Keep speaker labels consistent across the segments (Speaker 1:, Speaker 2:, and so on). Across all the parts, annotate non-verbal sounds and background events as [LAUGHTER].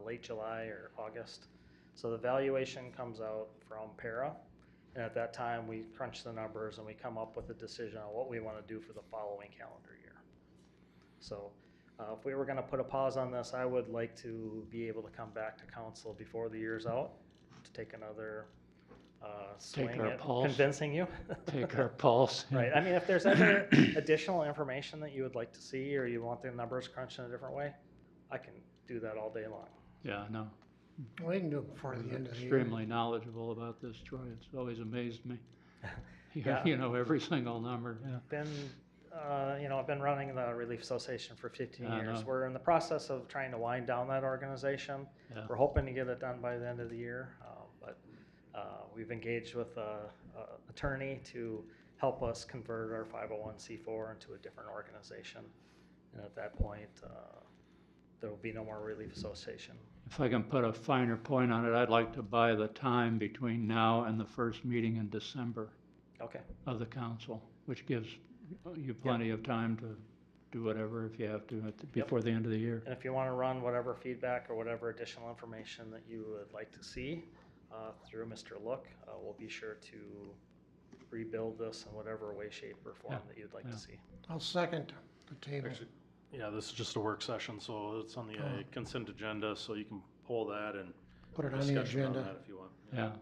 Speaker 1: uh, late July or August. So the valuation comes out from para. And at that time, we crunch the numbers and we come up with a decision on what we want to do for the following calendar year. So uh, if we were going to put a pause on this, I would like to be able to come back to council before the year's out to take another uh, swing
Speaker 2: our
Speaker 1: at
Speaker 2: pulse.
Speaker 1: convincing you.
Speaker 2: [LAUGHS] Take our pulse.
Speaker 1: [LAUGHS]
Speaker 2: and-
Speaker 1: Right, I mean, if there's ever
Speaker 2: [LAUGHS]
Speaker 1: additional information that you would like to see, or you want the numbers crunched in a different way, I can do that all day long.
Speaker 2: Yeah, no.
Speaker 3: We can do it before the
Speaker 2: You're
Speaker 3: end of the year.
Speaker 2: Extremely knowledgeable about this, Troy. It's always amazed
Speaker 3: [LAUGHS]
Speaker 2: me. You-
Speaker 1: Yeah.
Speaker 2: [LAUGHS] You know, every single number, yeah.
Speaker 1: Been, uh, you know, I've been running the Relief Association for fifteen
Speaker 2: I
Speaker 1: years.
Speaker 2: know.
Speaker 1: We're in the process of trying to wind down that organization.
Speaker 2: Yeah.
Speaker 1: We're hoping to get it done by the end of the year, uh, but, uh, we've engaged with a, a attorney to help us convert our five oh one C four into a different organization. And at that point, uh, there will be no more Relief Association.
Speaker 2: If I can put a finer point on it, I'd like to buy the time between now and the first meeting in December
Speaker 1: Okay.
Speaker 2: of the council, which gives you plenty of time to do whatever if you have to at the- before the end of the year.
Speaker 1: And if you want to run whatever feedback or whatever additional information that you would like to see uh, through Mr. Look, uh, we'll be sure to rebuild this in whatever way, shape, or form
Speaker 2: Yeah,
Speaker 1: that you'd like
Speaker 2: yeah.
Speaker 1: to see.
Speaker 3: I'll second the table.
Speaker 4: Actually, Yeah, this is just a work session, so it's on the uh,
Speaker 3: Oh.
Speaker 4: consent agenda, so you can pull that and
Speaker 3: Put it on the
Speaker 4: discussion on
Speaker 3: agenda.
Speaker 4: that if you want.
Speaker 2: Yeah,
Speaker 5: I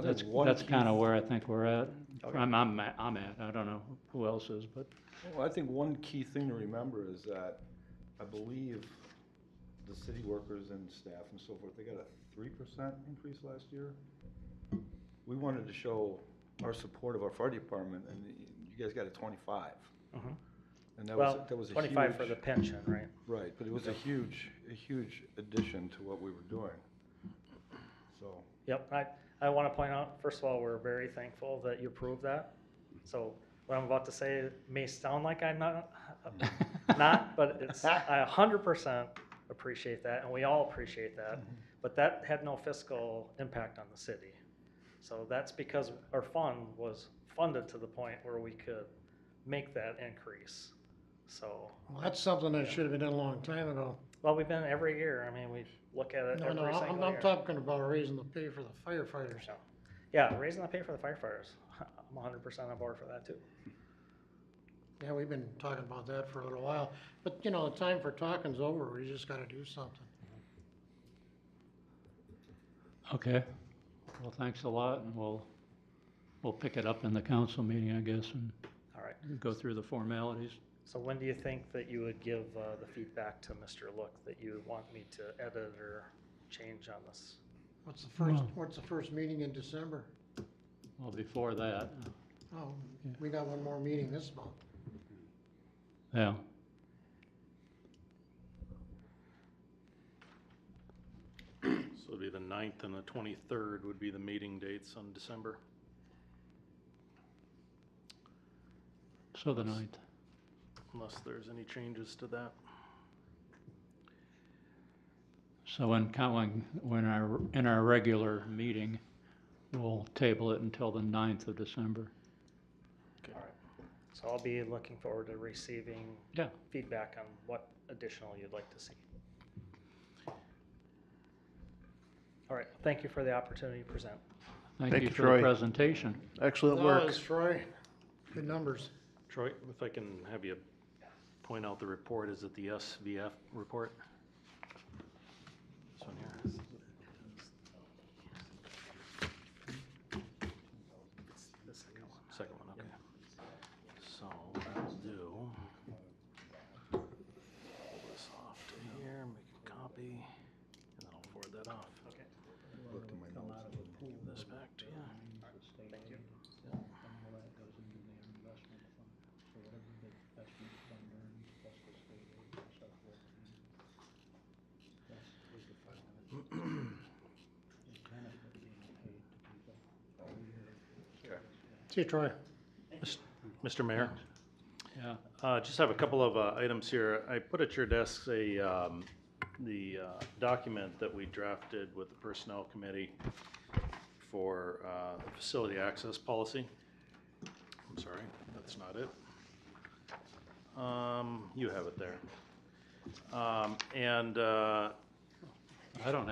Speaker 5: think
Speaker 2: that's,
Speaker 5: one
Speaker 2: that's
Speaker 5: key-
Speaker 2: kind of where I think we're at.
Speaker 1: Okay.
Speaker 2: I'm, I'm, at- I'm at, I don't know who else is, but
Speaker 5: Well, I think one key thing to remember is that I believe the city workers and staff and so forth, they got a three percent increase last year. We wanted to show our support of our fire department, and you guys got a twenty-five.
Speaker 1: Mhm.
Speaker 5: And that was,
Speaker 1: Well,
Speaker 5: that was a huge.
Speaker 1: twenty-five for the pension, right?
Speaker 5: Right, but it was a huge, a huge addition to what we were doing. So,
Speaker 1: Yep, I, I want to point out, first of all, we're very thankful that you approved that. So what I'm about to say may sound like I'm not, [LAUGHS] not,
Speaker 3: [LAUGHS]
Speaker 1: but it's, I a hundred percent appreciate that, and we all appreciate that.
Speaker 3: Mm-hmm.
Speaker 1: But that had no fiscal impact on the city. So that's because our fund was funded to the point where we could make that increase. So,
Speaker 3: Well, that's something that should have been done a long time ago.
Speaker 1: well, we've been every year, I mean, we look at it
Speaker 3: No, no,
Speaker 1: every single
Speaker 3: I'm,
Speaker 1: year.
Speaker 3: I'm talking about raising the pay for the firefighters.
Speaker 1: So, Yeah, raising the pay for the firefighters, [LAUGHS] I'm hundred percent on board for that too.
Speaker 3: Yeah, we've been talking about that for a little while, but you know, the time for talking's over. We just gotta do something.
Speaker 2: Okay. Well, thanks a lot, and we'll, we'll pick it up in the council meeting, I guess, and
Speaker 1: All right,
Speaker 2: go through the formalities.
Speaker 1: so when do you think that you would give uh, the feedback to Mr. Look that you want me to edit or change on this?
Speaker 3: What's the first,
Speaker 2: Well-
Speaker 3: what's the first meeting in December?
Speaker 2: Well, before that,
Speaker 3: Oh,
Speaker 2: Yeah.
Speaker 3: we got one more meeting this month.
Speaker 2: yeah.
Speaker 4: So it'd be the ninth and the twenty-third would be the meeting dates on December.
Speaker 2: So the ninth.
Speaker 4: unless there's any changes to that.
Speaker 2: So when, co- when, when our, in our regular meeting, we'll table it until the ninth of December.
Speaker 1: All right, so I'll be looking forward to receiving
Speaker 2: Yeah.
Speaker 1: feedback on what additional you'd like to see. All right, thank you for the opportunity to present.
Speaker 2: Thank
Speaker 6: Thank
Speaker 2: you
Speaker 6: you,
Speaker 2: for the
Speaker 6: Troy.
Speaker 2: presentation.
Speaker 6: Excellent
Speaker 3: No,
Speaker 6: work.
Speaker 3: it's Troy, good numbers.
Speaker 4: Troy, if I can have you point out the report, is it the SVF report? This one here? Second one, okay. So we'll do. Pull this off to here, make a copy, and then I'll forward that off.
Speaker 1: Okay.
Speaker 5: looked in my notes.
Speaker 4: Give this back to you.
Speaker 1: Thank you.
Speaker 3: See you, Troy.
Speaker 4: Mr. Mayor?
Speaker 2: Yeah.
Speaker 4: Uh, Just have a couple of uh, items here. I put at your desks a, um, the uh, document that we drafted with the Personnel Committee for uh, the facility access policy. I'm sorry, that's not it. Um, You have it there. Um, And uh,
Speaker 2: I don't